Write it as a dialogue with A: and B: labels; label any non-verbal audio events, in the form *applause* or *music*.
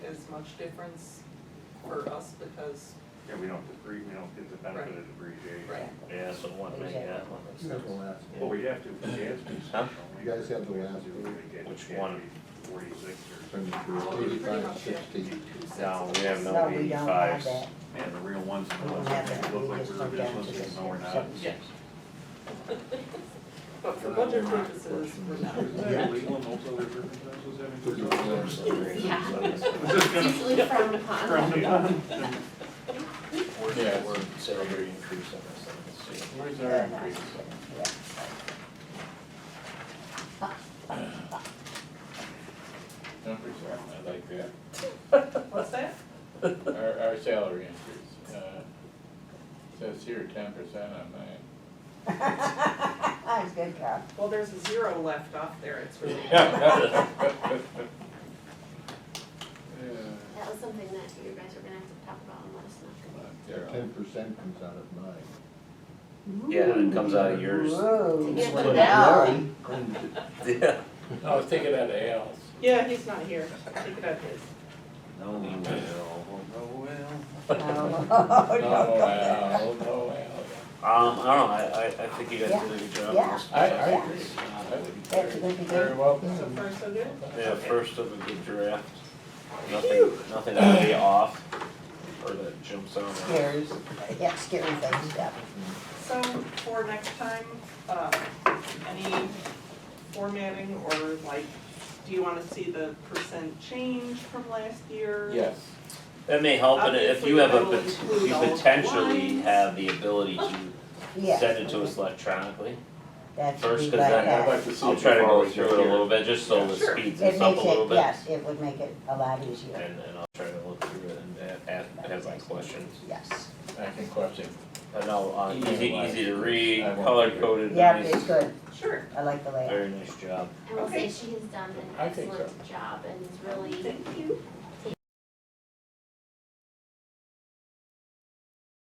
A: much difference for us because,
B: Yeah, we don't depreciate, we don't get the benefit of depreciation.
A: right,
C: Yeah, so one thing, yeah, one makes
D: You guys will
C: sense.
D: last.
B: But we have to, we have to.
C: Huh?
B: We
D: You guys have the
B: we
D: last
B: to
D: word.
B: get-
C: Which
B: we have
C: one?
B: to be Forty-six or.
D: Turn it
A: well,
D: through
A: we pretty
D: eighty-five,
A: much have two
D: sixty.
A: sets.
C: No, we have
E: No,
C: no
E: we
C: B
E: don't have
C: fives.
E: that.
B: Man, the real ones,
E: We don't have that.
B: we look
E: We
B: like
E: just
B: we
E: go
B: were just
E: down to the
B: listening, no, we're not.
E: seven
A: Yeah.
E: cents.
A: But for
C: *laughs*
A: budget purposes, we're not.
D: Yeah.
B: Is this
E: *laughs*
B: gonna-
F: usually frowned upon.
C: Yeah, we're considering increase on this, let me see.
B: Where's our
E: Yeah,
B: increase?
E: yeah.
G: Numbers on, I like that.
A: What's that?
G: Our, our salary increase, uh, says here ten percent on *laughs* mine.
E: *laughs* That's good, Carl.
A: Well, there's a zero left off there, it's really.
G: Yeah,
F: That was something that you guys were gonna have to talk about and let us know.
G: Daryl,
D: Ten percent comes out of mine.
C: Yeah, and it comes out of yours.
F: To
E: Whoa.
F: get
C: Well,
F: the bell.
D: Mine cleans it.
C: *laughs* Yeah.
G: I was thinking of the Al's.
A: Yeah, he's not here, take it out his.
C: No, we will.
B: Oh, well.
E: Oh, *laughs*
G: Oh,
E: don't go there.
G: Al, oh,
C: Um, I don't know, I, I, I think you guys did a good job.
E: Yeah,
G: Al. I, I agree. I would
E: That's
G: very-
E: good to
G: Very
E: do.
G: well
A: So
G: done.
A: far, so good?
C: Yeah, first of a good draft, nothing, nothing to lay off, or that jumps out. at us.
E: Scares, yeah, scary things, yeah.
A: So for next time, uh, any formatting or like, do you wanna see the percent change from last year?
G: Yes,
C: That may help, and if you have a, pot-
A: Obviously, that'll
C: if you
A: include all the
C: potentially
A: lines.
C: have the ability to
E: Yes.
C: send it to us electronically.
E: That should
C: first,
E: be
C: 'cause
E: like
C: then-
G: I'd
E: that.
G: like to see.
C: I'll
G: it
C: try to go
G: before we
C: through
G: get
C: it a
G: here.
C: little bit, just so it
A: Sure.
C: speeds
E: It
C: us up a
E: makes
C: little
E: it,
C: bit.
E: yes, it would make it a lot easier,
C: And, and I'll try to look through it and a- ask, ask my questions.
E: yes.
G: I can question.
C: I know, uh,
G: Yeah,
C: easy,
G: why?
C: easy to read,
G: I won't
C: color coded,
E: Yeah,
C: nice,
E: it's good,
A: Sure.
E: I like the layout.
C: very nice job.
F: I will
A: Okay.
F: say she has done an
G: I think so.
F: excellent job and is really
A: Thank